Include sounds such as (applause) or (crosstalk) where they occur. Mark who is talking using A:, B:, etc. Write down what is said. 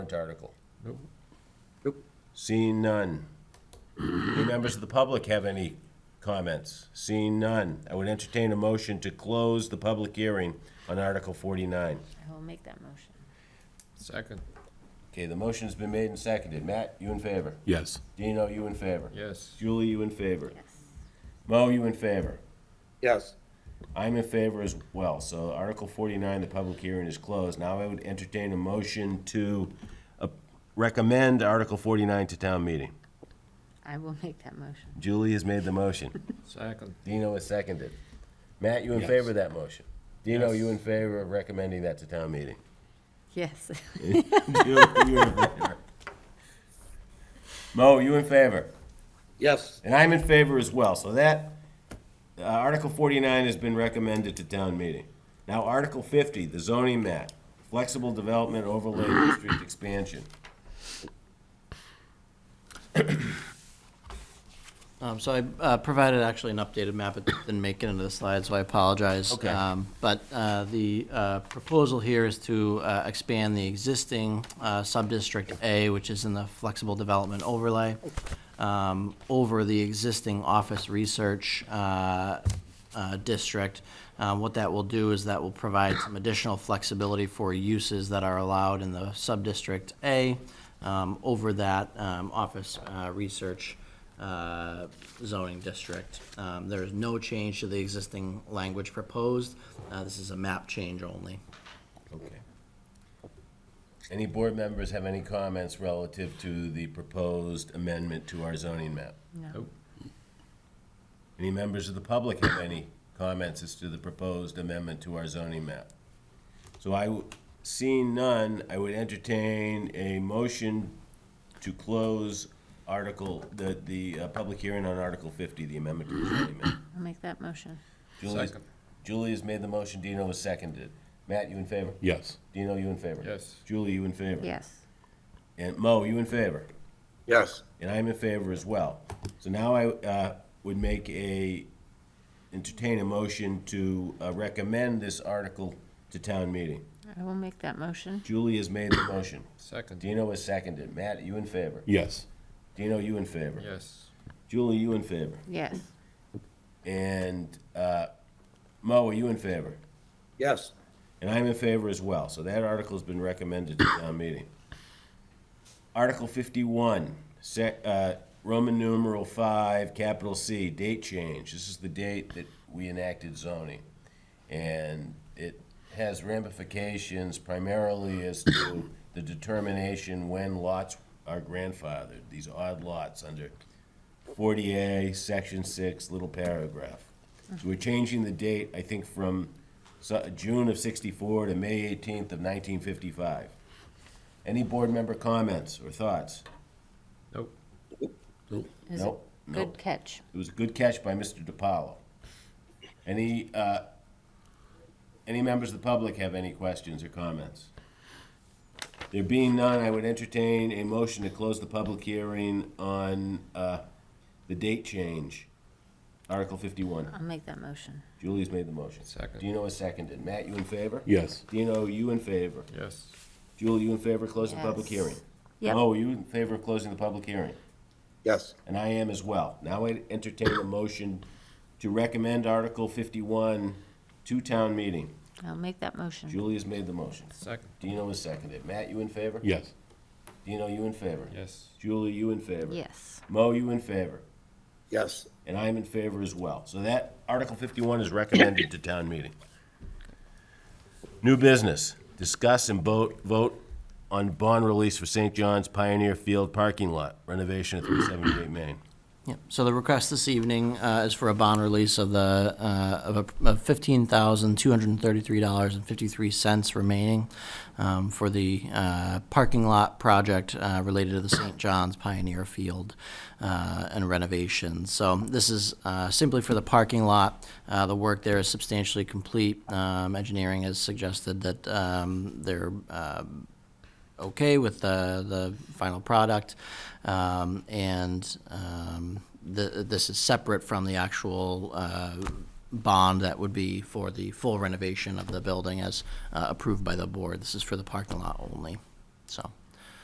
A: warrant article?
B: Nope.
A: Seeing none. Any members of the public have any comments? Seeing none, I would entertain a motion to close the public hearing on Article 49.
C: I will make that motion.
D: Second,
A: Okay, the motion's been made and seconded. Matt, you in favor?
E: Yes.
A: Dino, you in favor?
D: yes.
A: Julie, you in favor?
C: Yes.
A: Mo, you in favor?
B: Yes.
A: I'm in favor as well. So Article 49, the public hearing is closed. Now I would entertain a motion to uh, recommend Article 49 to town meeting.
C: I will make that motion.
A: Julie has made the motion.
D: Second,
A: Dino has seconded. Matt, you in favor of that motion? Dino, you in favor of recommending that to town meeting?
C: Yes.
A: Julie, you in favor? Mo, you in favor?
B: Yes.
A: And I'm in favor as well. So that, uh, Article 49 has been recommended to town meeting. Now, Article 50, the zoning map, flexible development overlay district expansion.
F: Um, So I uh, provided actually an updated map, it didn't make it into the slide, so I apologize.
A: Okay.
F: Um, But uh, the uh, proposal here is to uh, expand the existing uh, sub-district A, which is in the flexible development overlay, um, over the existing office research uh, uh, district. Uh, What that will do is that will provide some additional flexibility for uses that are allowed in the sub-district A um, over that um, office uh, research uh, zoning district. Um, There is no change to the existing language proposed. Uh, This is a map change only.
A: Okay. Any board members have any comments relative to the proposed amendment to our zoning map?
C: No.
A: Any members of the public have any comments as to the proposed amendment to our zoning map? So I, w- seeing none, I would entertain a motion to close article, the, the uh, public hearing on Article 50, the amendment to the zoning map.
C: (laughs) I'll make that motion.
A: Julie's-
D: Second.
A: Julie has made the motion, Dino has seconded. Matt, you in favor?
E: Yes.
A: Dino, you in favor?
D: Yes.
A: Julie, you in favor?
C: Yes.
A: And Mo, you in favor?
B: Yes.
A: and I'm in favor as well. So now I uh, would make a, entertain a motion to uh, recommend this article to town meeting.
C: I will make that motion.
A: Julie has made the motion.
D: second,
A: Dino has seconded. Matt, you in favor?
E: Yes.
A: Dino, you in favor?
D: yes.
A: Julie, you in favor?
C: Yes.
A: And uh, Mo, are you in favor?
B: Yes.
A: And I'm in favor as well. So that article's been recommended to town meeting. Article fifty-one, sec, uh, Roman numeral five, capital C, date change. This is the date that we enacted zoning. And it has ramifications primarily as to the determination when lots are grandfathered, these odd lots under forty A, section six, little paragraph. So we're changing the date, I think, from so- June of sixty-four to May eighteenth of nineteen fifty-five. Any board member comments or thoughts?
D: Nope,
C: Is it
A: Nope,
C: Good
A: nope.
C: catch.
A: It was a good catch by Mr. DiPaolo. Any, uh, any members of the public have any questions or comments? There being none, I would entertain a motion to close the public hearing on uh, the date change, Article 51.
C: I'll make that motion.
A: Julie's made the motion.
D: Second.
A: Dino is seconded. Matt, you in favor?
E: Yes.
A: Dino, you in favor?
D: yes.
A: Julie, you in favor of closing the public
C: Yes.
A: hearing?
C: Yep.
A: Mo, are you in favor of closing the public hearing?
B: Yes.
A: And I am as well. Now I entertain a motion to recommend Article 51 to town meeting.
C: I'll make that motion.
A: Julie has made the motion.
D: Second,
A: Dino has seconded. Matt, you in favor?
E: Yes.
A: Dino, you in favor?
D: yes.
A: Julie, you in favor?
C: Yes.
A: Mo, you in favor?
B: Yes.
A: And I am in favor as well. So that, Article 51 is recommended to town meeting. New business, discuss and vote, vote on bond release for St. John's Pioneer Field parking lot renovation at 378 Main.
F: Yep. So the request this evening uh, is for a bond release of the, uh, of a- of $15,233.53 remaining um, for the uh, parking lot project uh, related to the St. John's Pioneer Field uh, and renovation. So this is uh, simply for the parking lot. Uh, The work there is substantially complete. Um, Engineering has suggested that um, there uh, okay with the, the final product. Um, and um, the, this is separate from the actual uh, bond that would be for the full renovation of the building as uh, approved by the board. This is for the parking lot only. So